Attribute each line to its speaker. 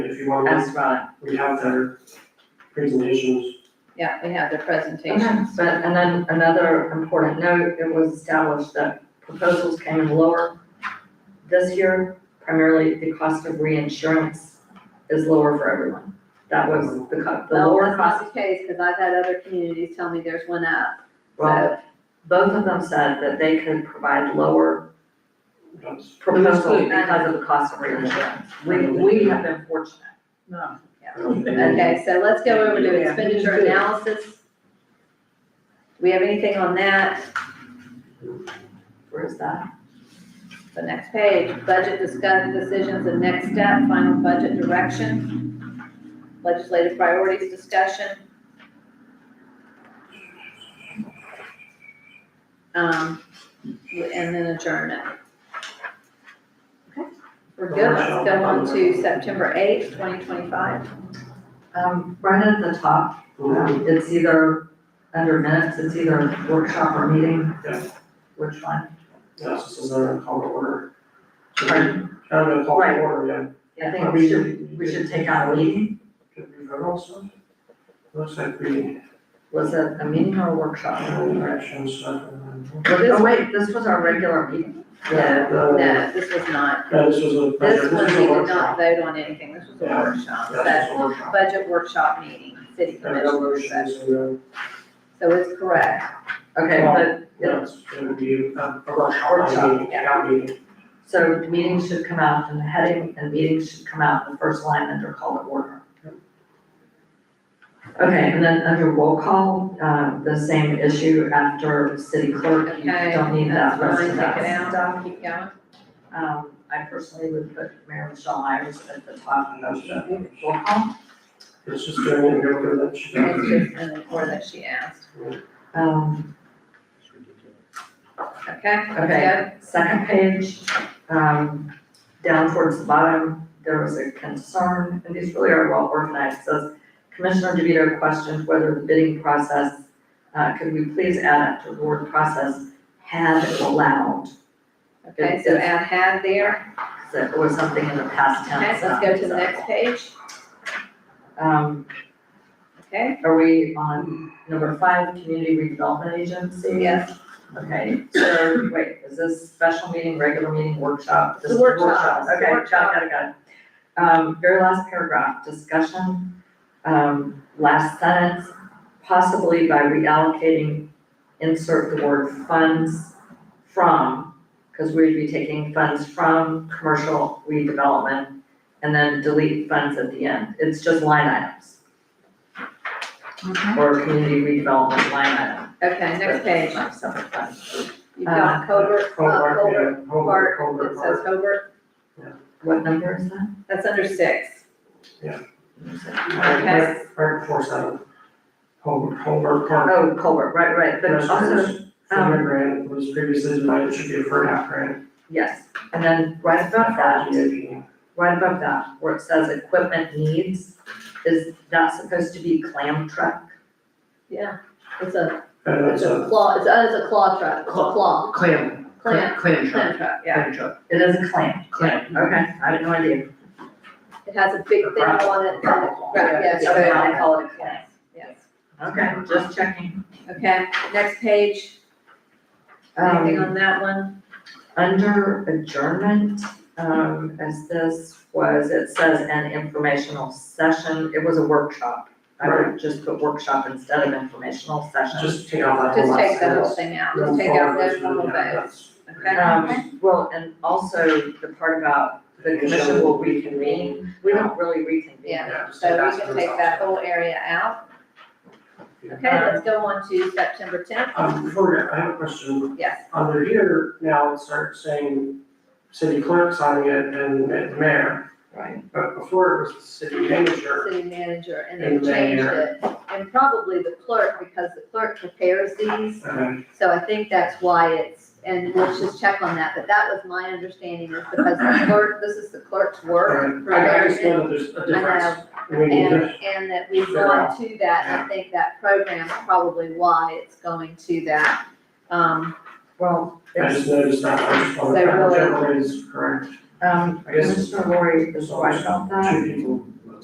Speaker 1: you want
Speaker 2: That's
Speaker 1: to,
Speaker 2: right.
Speaker 1: we have their presentations.
Speaker 3: Yeah, we have the
Speaker 2: Okay,
Speaker 3: presentation.
Speaker 2: so- and then another important note, it was established that proposals came in lower this year, primarily the cost of reinsurance is lower for everyone. That was the co- the
Speaker 3: Well,
Speaker 2: lower
Speaker 3: that's
Speaker 2: cost,
Speaker 3: not the case, because I've had other communities tell me there's one up,
Speaker 2: well,
Speaker 3: so,
Speaker 2: both of them said that they could provide lower
Speaker 1: That's,
Speaker 2: proposals because of the cost of reinsurance. We, we have been fortunate.
Speaker 4: No.
Speaker 3: okay, so let's go over to
Speaker 4: Yeah.
Speaker 3: expenditure analysis. We have anything on that,
Speaker 2: Where is that?
Speaker 3: the next page, budget discuss decisions and next step, final budget direction, legislative priorities discussion. Um, and then adjournment. Okay, We're good, let's go on to September eighth, twenty twenty-five.
Speaker 2: Um, right at the top,
Speaker 1: Mhm.
Speaker 2: Um, It's either under minutes, it's either workshop or meeting.
Speaker 1: Yeah.
Speaker 2: Which one?
Speaker 1: that's, this is our call to order. I
Speaker 2: Pardon?
Speaker 1: don't know, call to
Speaker 2: Right.
Speaker 1: order, yeah.
Speaker 2: Yeah, I think we should, we should take out a meeting.
Speaker 1: Could we vote also? Looks like we,
Speaker 2: Was it a meeting or a workshop?
Speaker 1: uh, action stuff. and then-
Speaker 2: Oh, wait, this was our regular meeting.
Speaker 3: No,
Speaker 1: No.
Speaker 3: no, this was not,
Speaker 1: Yeah, uh, this was a,
Speaker 3: this
Speaker 1: this
Speaker 3: one
Speaker 1: was
Speaker 3: we
Speaker 1: a
Speaker 3: did not
Speaker 1: workshop.
Speaker 3: vote on anything, this was a
Speaker 1: Yeah.
Speaker 3: workshop,
Speaker 1: Yeah, this
Speaker 3: so,
Speaker 1: was a workshop.
Speaker 3: budget workshop meeting, city
Speaker 1: And no
Speaker 3: commission
Speaker 1: motions,
Speaker 3: session,
Speaker 1: so, uh,
Speaker 3: so it's correct.
Speaker 2: Okay, but,
Speaker 1: yeah, it's, it would be a a workshop,
Speaker 2: Workshop,
Speaker 1: I mean, yeah, I mean,
Speaker 2: so meetings should come out in the heading and meetings should come out in the first line under call to order. Okay, and then under roll call, uh, the same issue after city clerk, you
Speaker 3: Okay,
Speaker 2: don't need that
Speaker 3: that's
Speaker 2: rest of
Speaker 3: fine,
Speaker 2: that
Speaker 3: take it out.
Speaker 2: stuff.
Speaker 3: Keep going.
Speaker 2: Um, I personally would put Mayor Michelle Myers at the top of the roll call.
Speaker 1: it's just doing it, we're gonna let you know.
Speaker 3: It's just in the order that she asked,
Speaker 2: Um,
Speaker 3: okay? let's
Speaker 2: Okay. second page, um, down towards the bottom, there was a concern, and these really are well organized, says Commissioner DeVito questioned whether the bidding process, uh, could we please add up to the word process had allowed?
Speaker 3: go. Okay, so add had there,
Speaker 2: So it was something in the past
Speaker 3: okay,
Speaker 2: tense.
Speaker 3: let's go to the next page,
Speaker 2: Um,
Speaker 3: okay?
Speaker 2: are we on number five, community redevelopment agency?
Speaker 3: Yes,
Speaker 2: Okay, so, wait, is this special meeting, regular meeting, workshop? This is
Speaker 3: Workshop,
Speaker 2: Okay, got it,
Speaker 3: workshop.
Speaker 2: got it, got it. Um, very last paragraph, discussion, um, last sentence, possibly by reallocating, insert the word funds from, because we'd be taking funds from commercial redevelopment and then delete funds at the end. It's just line items. Or community redevelopment line item.
Speaker 3: okay, next page,
Speaker 2: Not separate funds.
Speaker 3: you've got Hobart, uh,
Speaker 1: Hobart,
Speaker 3: Hobart
Speaker 1: yeah,
Speaker 3: Park,
Speaker 1: Hobart, Hobart
Speaker 3: it says
Speaker 1: Park.
Speaker 3: Hobart,
Speaker 2: What number is that?
Speaker 3: that's under six,
Speaker 1: Right,
Speaker 3: Okay.
Speaker 1: right- Right before seven. Hobart, Hobart Park.
Speaker 2: Oh, Colbert, right, right, but also,
Speaker 1: Commissioners, From
Speaker 3: um,
Speaker 1: the grant was previously denied, it should be a first half grant.
Speaker 2: yes, and then right above that,
Speaker 1: GIP.
Speaker 2: right above that, where it says equipment needs, is that supposed to be clam truck?
Speaker 3: yeah, it's a,
Speaker 1: And
Speaker 3: it's
Speaker 1: that's
Speaker 3: a
Speaker 1: a,
Speaker 3: claw, it's, uh, it's a claw truck, it's a claw,
Speaker 4: Clam,
Speaker 3: clam,
Speaker 4: clam, clam
Speaker 3: clam
Speaker 4: truck,
Speaker 3: truck, yeah.
Speaker 4: clam truck,
Speaker 2: It is a clam,
Speaker 4: clam.
Speaker 2: okay, I had no idea.
Speaker 3: It has a big thing on it, and it- right, yes,
Speaker 2: Okay, I
Speaker 3: so-
Speaker 2: call it a clam,
Speaker 3: yes, yes.
Speaker 2: okay, just checking.
Speaker 3: Okay, next page, anything
Speaker 2: Um,
Speaker 3: on that one?
Speaker 2: under adjournment, um, as this was, it says an informational session, it was a workshop. I would just put workshop instead of informational session.
Speaker 1: just take out that whole
Speaker 3: Just
Speaker 1: last
Speaker 3: take the whole
Speaker 1: sentence.
Speaker 3: thing out,
Speaker 1: Move
Speaker 3: just take out
Speaker 1: forward,
Speaker 3: those little
Speaker 1: yeah,
Speaker 3: votes,
Speaker 1: that's-
Speaker 3: okay?
Speaker 2: Um, well, and also the part about the commission will reconvene, we don't really reconvene.
Speaker 3: Yeah.
Speaker 1: Yeah, just take
Speaker 3: So
Speaker 1: that
Speaker 3: we can
Speaker 1: sentence
Speaker 3: take
Speaker 1: out.
Speaker 3: that whole area out, okay, let's go on to September tenth,
Speaker 1: Um, before, we- I have a question,
Speaker 3: yes,
Speaker 1: under here, now it starts saying city clerk signing it and and mayor,
Speaker 2: Right.
Speaker 1: but before it was the city manager.
Speaker 3: city manager, and
Speaker 1: And
Speaker 3: they changed it. And probably the clerk, because the clerk prepares these,
Speaker 1: Okay,
Speaker 3: so I think that's why it's, and let's just check on that, but that was my understanding, is because the clerk, this is the clerk's work.
Speaker 1: alright, I understand that there's a
Speaker 3: I know,
Speaker 1: difference. We need
Speaker 3: And,
Speaker 1: to-
Speaker 3: and that we've gone to that, I think that program's probably why it's going to that. Um,
Speaker 2: Well,
Speaker 1: I
Speaker 2: it's,
Speaker 1: just noticed that, I just wanted
Speaker 3: They
Speaker 1: to,
Speaker 3: really-
Speaker 1: generally is correct,
Speaker 2: um,
Speaker 1: I guess-
Speaker 2: Commissioner Lori is right about that.
Speaker 1: two people.